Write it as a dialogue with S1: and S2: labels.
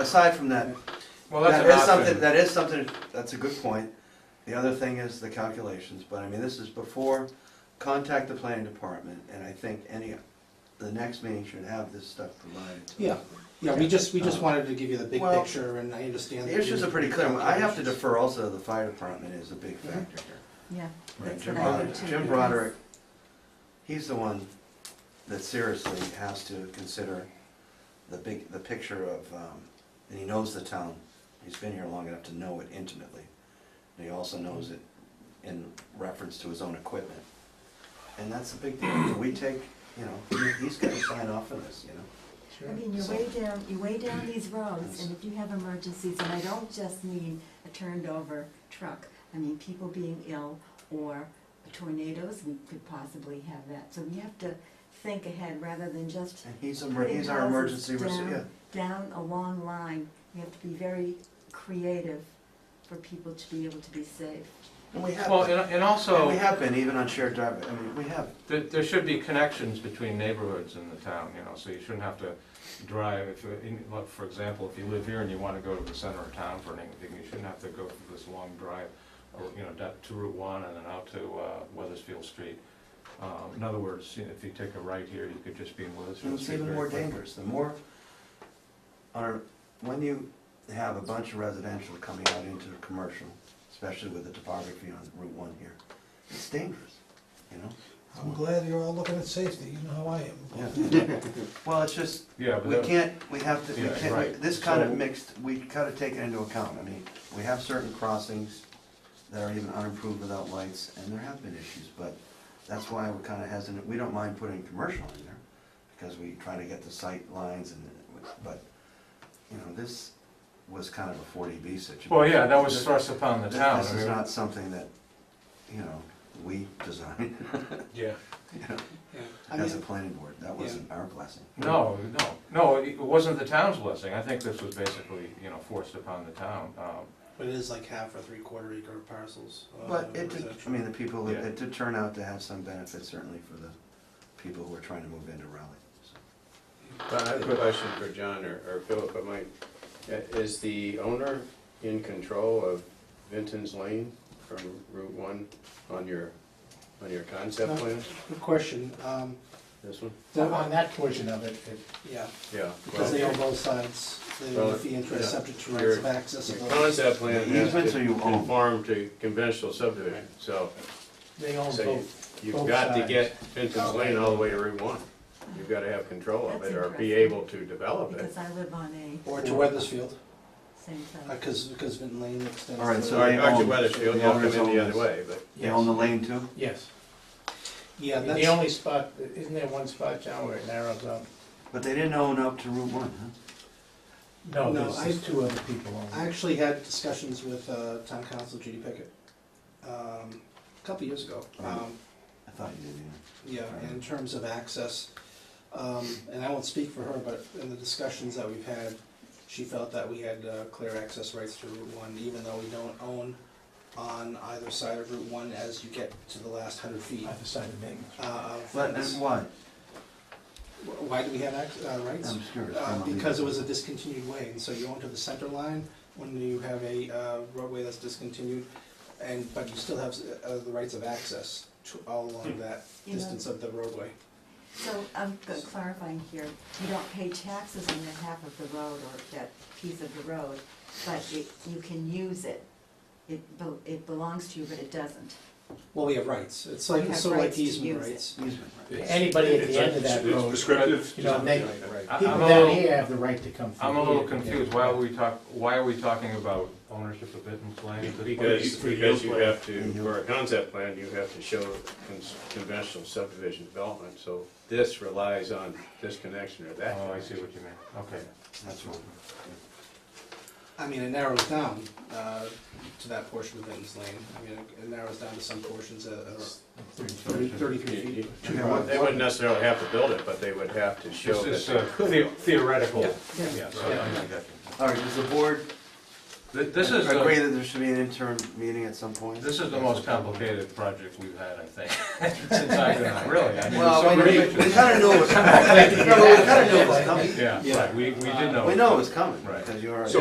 S1: aside from that,
S2: Well,
S1: that
S2: that's
S1: is
S2: an
S1: something,
S2: option.
S1: that is something, that's a good point. The other thing is the calculations, but I mean, this is before, contact the planning department, and I think any, the next meeting should have this stuff provided. to us.
S3: Yeah, yeah, we just, we just
S1: Um,
S3: wanted to give you the big
S1: well,
S3: picture, and I understand.
S1: The
S3: that
S1: issues
S3: you-
S1: are pretty clear, I have to
S3: calculations.
S1: defer also, the fire department is a big factor here.
S4: Yeah.
S1: Right,
S4: that's
S1: Jim
S4: what I
S1: Broderick,
S4: do too,
S1: Jim
S4: because-
S1: Broderick, he's the one that seriously has to consider the big, the picture of, um, and he knows the town. He's been here long enough to know it intimately. And he also knows it in reference to his own equipment. And that's the big deal. We take, you know, he- he's gotta sign off on this, you know?
S4: I mean, you're way down, you're way down these roads, and if you have emergencies, and I don't just mean a turned over truck, I mean people being ill or tornadoes, we could possibly have that, so we have to think ahead rather than just
S1: And he's, a-
S4: putting
S1: he's our
S4: houses
S1: emergency,
S4: down-
S1: rece- yeah.
S4: Down a long line, we have to be very creative for people to be able to be safe.
S1: And we have,
S2: Well,
S1: and
S2: and and
S1: we
S2: also,
S1: have been, even on shared driveway, I mean, we have.
S2: there, there should be connections between neighborhoods in the town, you know, so you shouldn't have to drive, if, you- in- look, for example, if you live here and you wanna go to the center of town for anything, you shouldn't have to go through this long drive, or, you know, down to Route One and then out to, uh, Weathersfield Street. Um, in other words, you know, if you take a right here, you could just be in
S1: And
S2: Weathersfield
S1: it's
S2: Street.
S1: even
S2: very
S1: more
S2: quickly.
S1: dangerous, the more, or, when you have a bunch of residential coming out into commercial, especially with the topography on Route One here, it's dangerous, you
S5: I'm
S1: know?
S5: glad you're all looking at safety, you know how I am.
S1: Yeah. Well, it's just,
S2: Yeah, but
S1: we
S2: that,
S1: can't, we have to, we
S2: Yeah,
S1: can't,
S2: right.
S1: this kind of
S2: So-
S1: mixed, we gotta take it into account, I mean, we have certain crossings that are even unimproved without lights, and there have been issues, but that's why we're kinda hesitant, we don't mind putting commercial in there, because we try to get the sight lines and, but, you know, this was kind of a forty B situation.
S2: well, yeah, that was thrust upon the
S1: This-
S2: town.
S1: This
S2: I
S1: is
S2: mean,
S1: not something that, you know, we designed
S2: Yeah.
S3: Yeah. I
S1: as a
S3: mean,
S1: planning board, that wasn't our blessing.
S2: No, no, no, it wasn't the town's blessing, I think this was basically, you know, forced upon the town, um,
S3: but it is like half or three quarter acre parcels. uh,
S1: But it did, I
S3: residential.
S1: mean, the people,
S2: Yeah.
S1: it did turn out to have some benefit certainly for the people who are trying to move into Raleigh. so.
S6: I have a question for John or or Philip, but my, Uh, is the owner in control of Vinton's Lane from Route One on your, on your concept plan?
S3: Good question, um,
S6: This one?
S3: that one,
S5: On that portion of it, it-
S3: yeah,
S6: Yeah.
S3: because they
S6: Well,
S3: own both sides, they own the fee interest subject to rights of access.
S6: Your
S3: and all.
S6: concept plan has
S1: Easements or
S6: to
S1: you own?
S6: conform to conventional subdivision, so
S5: they own
S6: So you-
S5: both.
S6: you've
S5: Both
S6: got to
S5: sides.
S6: get Vinton's Lane all the way to Route One. You've got to have control of
S4: That's
S6: it or be
S4: interesting.
S6: able to develop it.
S4: Because I live on a
S3: Or to Weathersfield,
S4: same side.
S3: because, because Vinton Lane extends.
S1: All right,
S3: to-
S1: so
S6: Or
S1: they
S6: Dr.
S1: own-
S6: Weathersfield,
S1: the
S6: they'll come
S1: owners
S6: in the
S1: own
S6: other
S1: this.
S6: way, but.
S1: They own the lane too?
S7: Yes,
S3: Yeah,
S7: the
S3: that's,
S7: only spot, isn't there one spot, John, where it narrows up?
S1: But they didn't own up to Route One, huh?
S7: No,
S3: No,
S7: there's
S3: I-
S7: just two other people on
S3: I
S7: it.
S3: actually had discussions with, uh, town council Judy Pickett, um, a couple years ago. Um,
S1: I thought you did, yeah.
S3: Yeah, and in terms of access, um, and I won't speak for her, but in the discussions that we've had, she felt that we had uh, clear access rights to Route One, even though we don't own on either side of Route One as you get to the last hundred feet.
S7: Either side of Main.
S3: uh, of
S1: But,
S3: fence.
S1: and why?
S3: Wh- Why do we have ac- uh, rights?
S1: I'm curious.
S3: Uh, Because it was a discontinued way, and so you own to the center line when you have a uh, roadway that's discontinued, and, but you still have uh, the rights of access to all along that
S4: You know-
S3: distance of the roadway.
S4: So I'm g- clarifying here, you don't pay taxes on that half of the road or that piece of the road, but it, you can use it. It, bel- it belongs to you, but it doesn't.
S3: Well, we have rights, it's
S4: We
S3: like,
S4: have
S3: sort of like
S4: rights to
S3: easement
S4: use it.
S3: rights.
S1: Easement,
S7: Anybody at the end of that
S8: It's
S7: road,
S8: prescriptive.
S7: you know, they,
S3: Right.
S2: I-
S7: people
S2: I'm a
S7: down
S2: little-
S7: here have the right to come through.
S2: I'm a little
S7: here.
S2: confused, why are we talk, why are we talking about ownership of Vinton's land at this point?
S6: Because, because you have to,
S1: Mhm.
S6: for a concept plan, you have to show con- conventional subdivision development, so this relies on this connection or that.
S2: Oh, I see
S6: connection.
S2: what you mean, okay.
S1: that's one.
S3: I mean, it narrows down uh, to that portion of Vinton's Lane, I mean, it- it narrows down to some portions of- of thirty- thirty-three
S6: You-
S3: feet.
S6: you- They wouldn't necessarily have to build it, but they would have to show
S2: This is
S6: that.
S2: uh, the- theoretical,
S3: Yeah,
S2: yes, I I got you.
S1: All right, does the board
S2: Th- This is,
S1: Agree
S2: the-
S1: that there should be an interim meeting at some point?
S2: this is the most complicated project we've had, I think, since I've been on, really. I mean,
S1: Well,
S2: so
S1: we
S2: many
S1: we
S2: pictures.
S1: kinda knew it was coming. No, but We kinda knew it was coming.
S2: Yeah, right, we, we did know.
S1: We know it was coming,
S2: Right.
S1: because you already.
S6: So